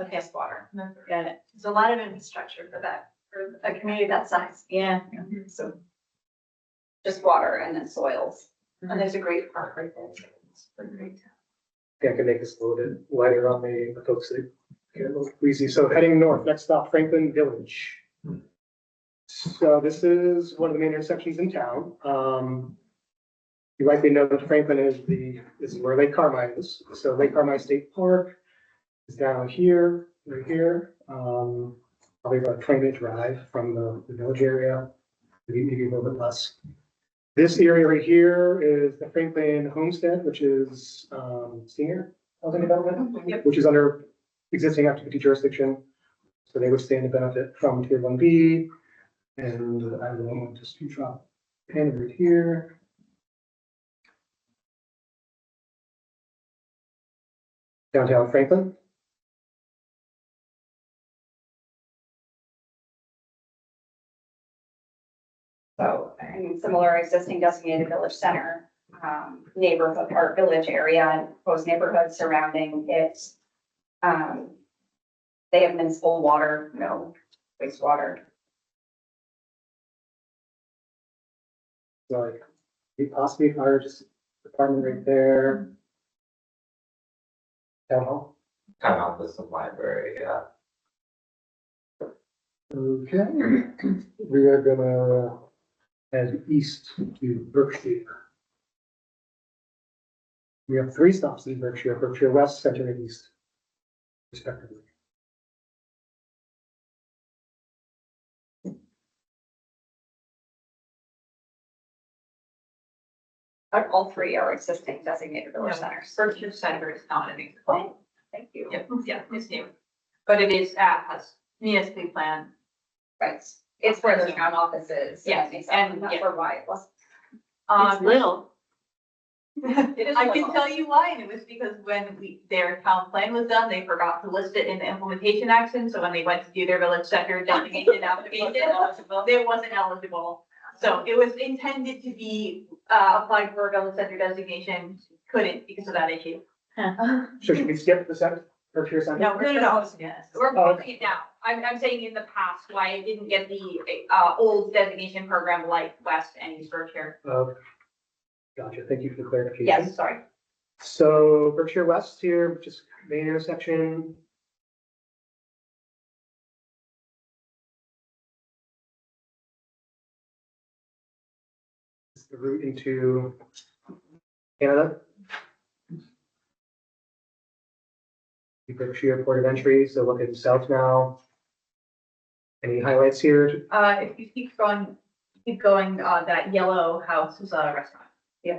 Okay, just water. got it. There's a lot of infrastructure for that, for a community that size. Mm-hmm. Yeah. So just water and then soils. And there's a great park right there. It's a great town. Yeah, I can make this a little bit lighter on the Potomac City. Get a little queasy. So heading north, next stop Franklin Village. So this is one of the main intersections in town. Um, you likely know that Franklin is the, this is where Lake Carmine is. So Lake Carmine State Park is down here, right here. Um, probably about a twenty minute drive from the the village area, maybe maybe a little bit less. This area right here is the Franklin Homestead, which is um, senior housing development, Yep. which is under existing activity jurisdiction. So they would stand to benefit from tier one B. And I will just drop pin right here. Downtown Franklin. So, I mean, similar existing designated village center, um, neighborhood or village area and proposed neighborhoods surrounding it. Um, they have municipal water, no wastewater. So like, the possibly fire just department right there. Town hall. Town office and library, yeah. Okay. We are gonna head east to Berkshire. We have three stops in Berkshire, Berkshire West, Center, and East. Respectively. But all three are existing designated village centers. Berkshire Center is not an example. Okay, Thank you. Yeah, yeah, it's new, but it is uh, at us, municipal plan. Right. It's where the town office is. Yes, And and- that's where why it was. Um, little. is I little. can tell you why, and it was because when we, their town plan was done, they forgot to list it in the implementation action, so when they went to do their village center designation application, it wasn't eligible. So it was intended to be, uh, applied for a village center designation, couldn't because of that issue. So should we skip the center, Berkshire Center? No, we're no. supposed to, we're putting it now. I'm, I'm saying in the past, why it didn't get the, uh, old designation program like West and East Berkshire. Uh, Gotcha, thank you for the Mhm. clarification. Yes, sorry. So Berkshire West here, which is main intersection. It's the route into Canada. The Berkshire Port of Entry, so looking south now. Any highlights here? Uh, if you keep going, keep going, uh, that yellow house is a restaurant. Yeah,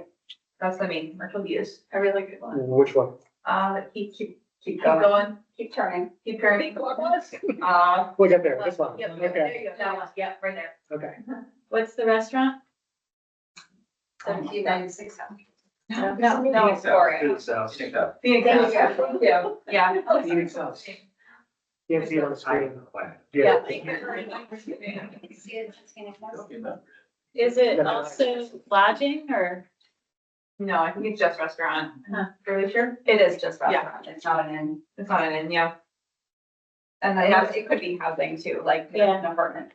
that's the main commercial use. A really good one. Which one? Uh, keep, keep, Keep keep going, going, keep turning. keep turning. Uh, We got there, this one. Yep, yep, Okay, there you go, that one, yep, right there. okay. What's the restaurant? Seventeen ninety-six. No, No, no, it's Oreo. So, think that. Phoenix House. Thank you. Yeah. Phoenix House. Can't see it on the screen. Yeah. See it, Tina, that's- Is it also lodging or? No, I think it's just restaurant. Huh. Really sure? It is just restaurant, it's not an inn. It's not an inn, yeah. And then it it could be housing too, like an Yeah. apartment.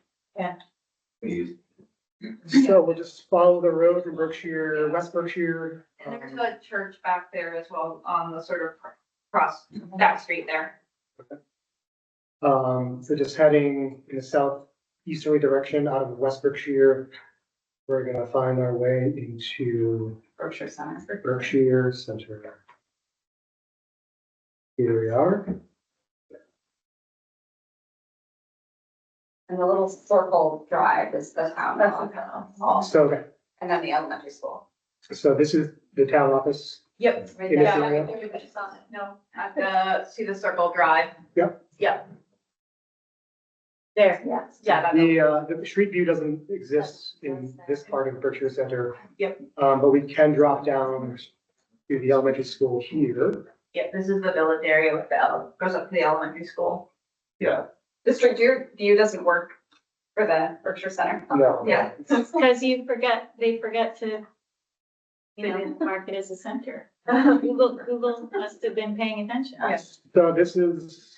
We use So we'll just follow the road from Berkshire, West Berkshire. And there's um, a church back there as well on the sort of cross, that street there. Um, so just heading in a southeasterly direction out of West Berkshire. We're gonna find our way into Grocery center. Berkshire Center. Here we are. And the little circle drive is the town hall, So, and then the elementary school. so this is the town office. Yep. Right In there. this Yeah. area. No, at the, see the circle drive. There. Yes. Yeah, that is- The, uh, the street view doesn't exist in this part of Berkshire Center. Yep. Um, but we can drop down to the elementary school here. yeah, this is the village area with the, ele- goes up to the elementary school. The street view, view doesn't work for the Berkshire Center. No. Yeah. Because you forget, they forget to, you know, mark it as a center. Google, Google must have been paying attention. Yes. So this is